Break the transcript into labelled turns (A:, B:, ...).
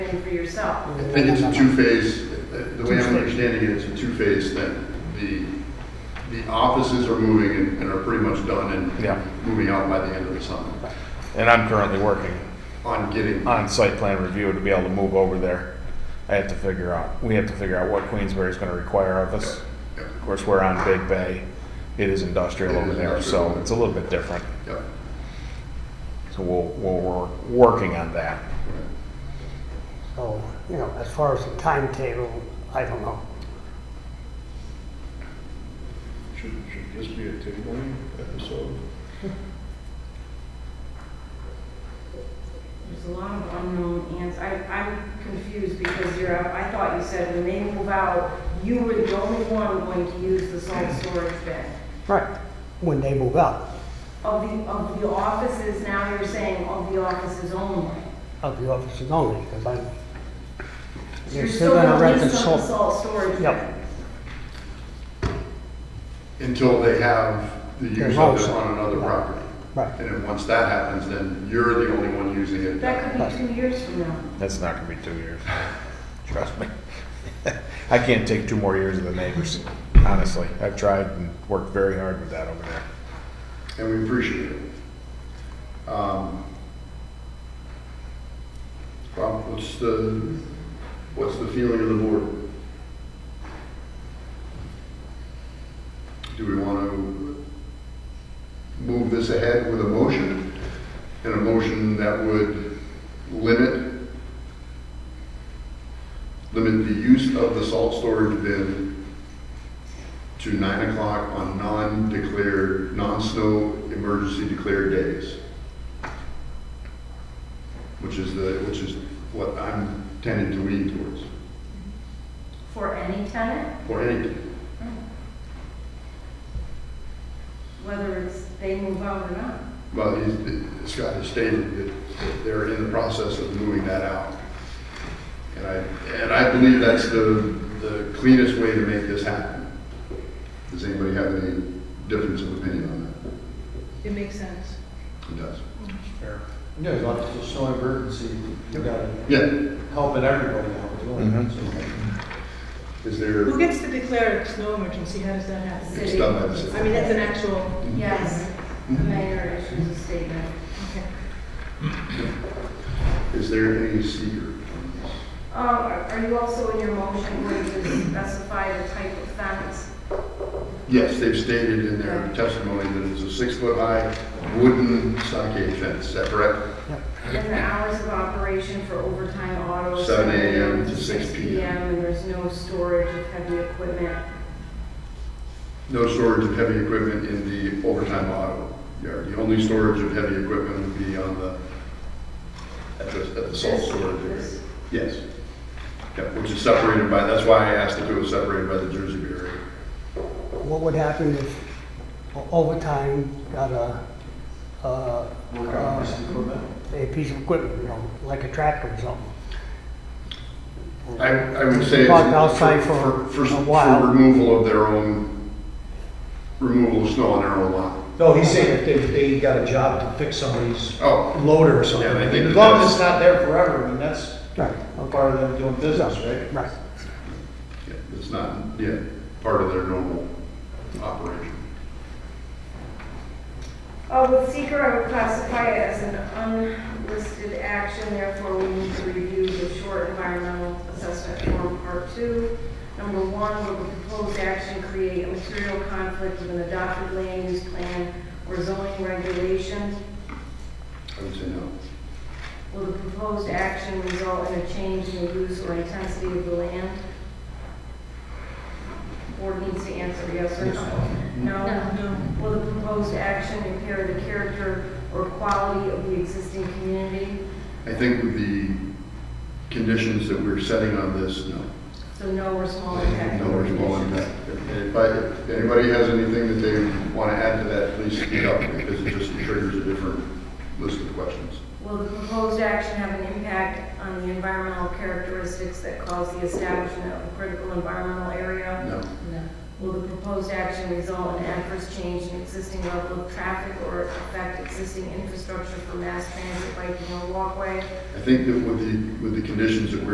A: something for yourself.
B: I think it's a two-phase, the way I'm understanding it, it's a two-phase thing. The, the offices are moving and- and are pretty much done
C: Yeah.
B: and moving out by the end of the summer
C: And I'm currently working
B: on getting,
C: on site plan review to be able to move over there. I have to figure out, we have to figure out what Queensbury is gonna require of us.
B: Yeah.
C: Of course, we're on Big Bay. It is industrial
B: It
C: over
B: is
C: there, so
B: industrial.
C: it's a little bit different.
B: yeah.
C: So we'll, we'll, we're working on that.
D: So, you know, as far as the timetable, I don't know.
E: Should, should this be a tabling episode?
A: There's a lot of unknown ans, I, I'm confused because you're, out- I thought you said when they move out, you were the only one going to use the salt
D: Mm-hmm.
A: storage bin.
D: Right. When they move out
A: Of the, of the offices, now you're saying of the offices only.
D: of the offices only, because I'm,
A: You're
D: they're still gonna rent the
A: lease up
D: salt.
A: Salt storage
D: Yep.
A: bin.
B: Until they have the
D: Their
B: use of
D: house.
B: it on another property.
D: Right.
B: And then once that happens, then you're the only one using it.
A: That could be two years from now.
C: That's not gonna be two years. Trust me. I can't take two more years of the neighbors, honestly. I've tried and worked very hard with that over there.
B: and we appreciate it. Um, Bob, what's the, what's the feeling of the board? Do we want to move this ahead with a motion? And a motion that would limit, limit the use of the salt storage bin to nine o'clock on non-declared, non-snow emergency declared days. Which is the, which is what I'm tending to lean towards,
A: For any tenant,
B: for any,
A: whether it's they move out or not.
B: well, he's- Scott has stated that that they're in the process of moving that out. And I, and I believe that's the, the cleanest way to make this happen. Does anybody have any difference of opinion on
F: It makes sense.
B: that? It does.
G: Yeah, as long as it's showing urgency, you gotta
B: Yeah,
G: help it everybody out, as
H: Mm-hmm.
G: well.
B: is there,
F: Who gets to declare a snow emergency? How does that happen?
B: it's done by the city.
F: I mean, that's an actual,
A: Yes, the mayor issues a statement.
F: okay.
B: Is there any secret?
A: Um, are are you also in your motion going to specify the type of fence?
B: Yes, they've stated in their testimony that it's a six-foot high wooden stockade fence, is that correct?
A: And the hours of operation for overtime autos?
B: 7 a.m. to 6 p.m.
A: And there's no storage of heavy equipment?
B: No storage of heavy equipment in the overtime auto yard. The only storage of heavy equipment would be on the, at the, at the salt storage area.
A: This-
B: Yes. Yeah, which is separated by, that's why I asked if it was separated by the Jersey barrier.
D: what would happen if o- overtime got a, uh,
G: Work on this equipment.
D: a piece of equipment, you know, like a tractor or something?
B: I, I would say. it's
D: Parked outside for a while.
B: For removal of their own, removal of snow on their own lot.
H: No, he's saying if they, they got a job to fix somebody's
B: Oh,
H: loader or something.
B: Yeah, I think
H: As
B: that
H: long
B: that's-
H: as it's not there forever, I mean, that's
D: Right, okay,
H: part of them doing business, right?
D: right.
B: Yeah, It's not, yeah, part of their normal operation.
A: Uh, with seeker, I would classify it as an unlisted action, therefore we need to review the short environmental assessment form, part two. Number one, will the proposed action create a material conflict with an adopted land use plan or zoning regulations?
B: I would say no.
A: Will the proposed action result in a change in the use or intensity of the land? Board needs to answer yes or no. No?
F: No.
A: Will the proposed action impair the character or quality of the existing community?
B: I think with the conditions that we're setting on this, no.
A: So no or small impact.
B: No reasonable impact. If I- if anybody has anything that they want to add to that, please speak up, because it just triggers a different list of questions.
A: Will the proposed action have an impact on the environmental characteristics that cause the establishment of a critical environmental area?
B: No.
A: No. Will the proposed action result in adverse change in existing level of traffic or affect existing infrastructure for mass transit, biking, or walkway?
B: I think that with the, with the conditions that we're